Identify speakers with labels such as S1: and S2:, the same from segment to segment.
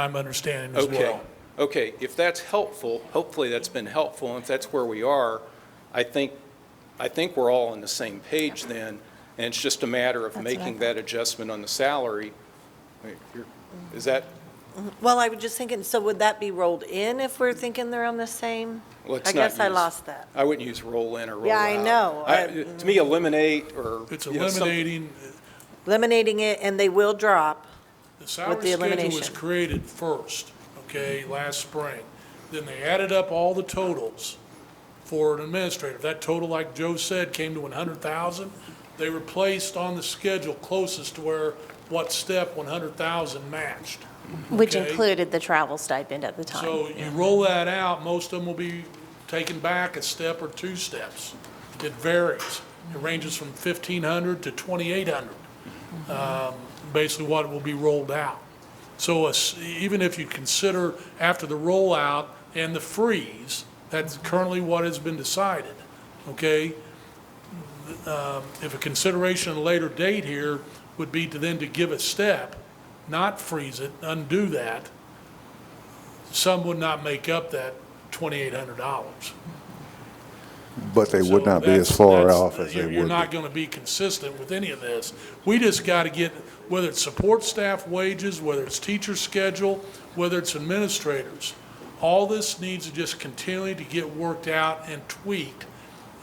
S1: I'm understanding as
S2: Okay,
S1: well.
S2: okay, if that's helpful, hopefully that's been helpful, and if that's where we are, I think, I think we're all on the same page then, and it's just a matter of
S3: That's what I
S2: making
S3: thought.
S2: that adjustment on the salary. Wait, you're- Is that,
S3: Well, I was just thinking, so would that be rolled in if we're thinking they're on the same?
S2: let's
S3: I
S2: not
S3: guess I
S2: use-
S3: lost that.
S2: I wouldn't use roll in or roll out.
S3: Yeah, I know.
S2: I-
S3: I-
S2: To me, eliminate or.
S1: It's
S2: you know, something-
S1: eliminating,
S3: Eliminating it, and they will drop.
S1: the salary
S3: the
S1: schedule was
S3: elimination.
S1: created first, okay, last spring. Then they added up all the totals for an administrator. That total, like Joe said, came to one hundred thousand. They were placed on the schedule closest to where what step one hundred thousand matched.
S4: Which
S1: Okay.
S4: included the travel stipend at the time.
S1: So you roll that out, most of them will be taken back a step or two steps. It varies. It ranges from fifteen hundred to twenty-eight hundred, um, basically what will be rolled out. So a s- even if you consider after the rollout and the freeze, that's currently what has been decided, okay? Um, If a consideration at a later date here would be to then to give a step, not freeze it, undo that, some would not make up that twenty-eight hundred dollars.
S5: But they would not be as far off as they
S1: You're
S5: would
S1: not
S5: be.
S1: gonna be consistent with any of this. We just gotta get, whether it's support staff wages, whether it's teacher schedule, whether it's administrators, all this needs to just continue to get worked out and tweaked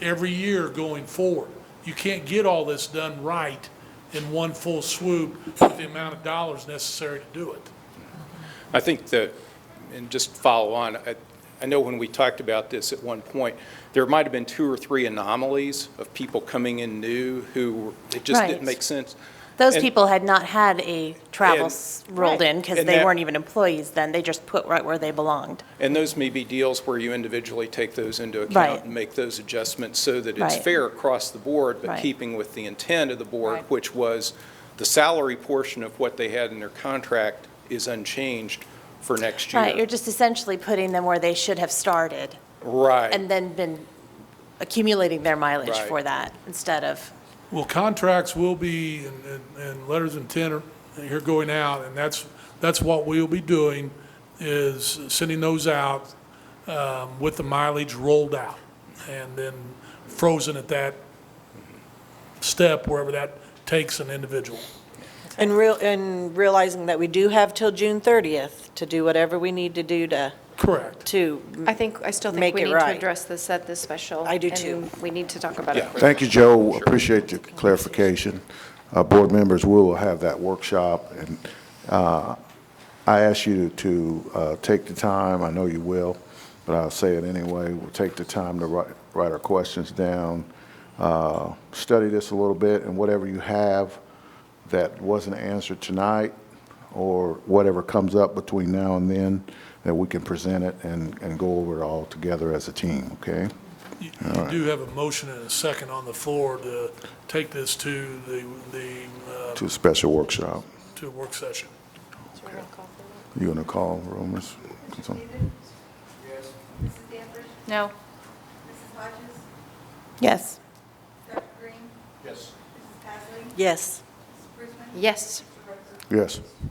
S1: every year going forward. You can't get all this done right in one full swoop with the amount of dollars necessary to do it.
S2: I think that, and just to follow on, I, I know when we talked about this at one point, there might have been two or three anomalies of people coming in new who, it just
S4: Right.
S2: didn't make sense.
S4: Those
S2: and-
S4: people had not had a travel
S2: And-
S4: s- rolled in because
S2: And
S4: they
S2: that-
S4: weren't even employees then. They just put right where they belonged.
S2: And those may be deals where you individually take those into
S4: Right.
S2: account and make those adjustments so that it's
S4: Right.
S2: fair across the board, but
S4: Right.
S2: keeping with the intent of the board,
S4: Right.
S2: which was the salary portion of what they had in their contract is unchanged for next year.
S4: Right, you're just essentially putting them where they should have started
S2: Right.
S4: and then been accumulating their mileage
S2: Right.
S4: for that instead of,
S1: Well, contracts will be, and- and, and letters of intent are, here going out, and that's, that's what we'll be doing, is sending those out um, with the mileage rolled out, and then frozen at that step, wherever that takes an individual.
S3: And real, and realizing that we do have till June 30th to do whatever we need to do to,
S1: Correct.
S3: to,
S6: I think, I still
S3: Make
S6: think we
S3: it
S6: need
S3: right.
S6: to address this at this special.
S3: I do
S6: and
S3: too.
S6: we need to talk about it.
S2: Yeah.
S6: further.
S5: Thank you, Joe. Appreciate your clarification. Uh, Board members, we will have that workshop, and uh, I ask you to uh, take the time, I know you will, but I'll say it anyway, we'll take the time to write write our questions down, uh, study this a little bit, and whatever you have that wasn't answered tonight, or whatever comes up between now and then, that we can present it and and go over it all together as a team, okay?
S1: You you do have a motion and a second on the floor to take this to the, the, uh,
S5: To a special workshop.
S1: to a work session.
S5: You gonna call rumors?
S7: Mrs. Danvers?
S6: No.
S7: Mrs. Hodges?
S4: yes.
S7: Dr. Green?
S2: Yes.
S7: Mrs. Hasling?
S3: yes.
S7: Mrs. Brisbane?
S6: Yes.
S7: Mr. Rucker?
S5: Yes.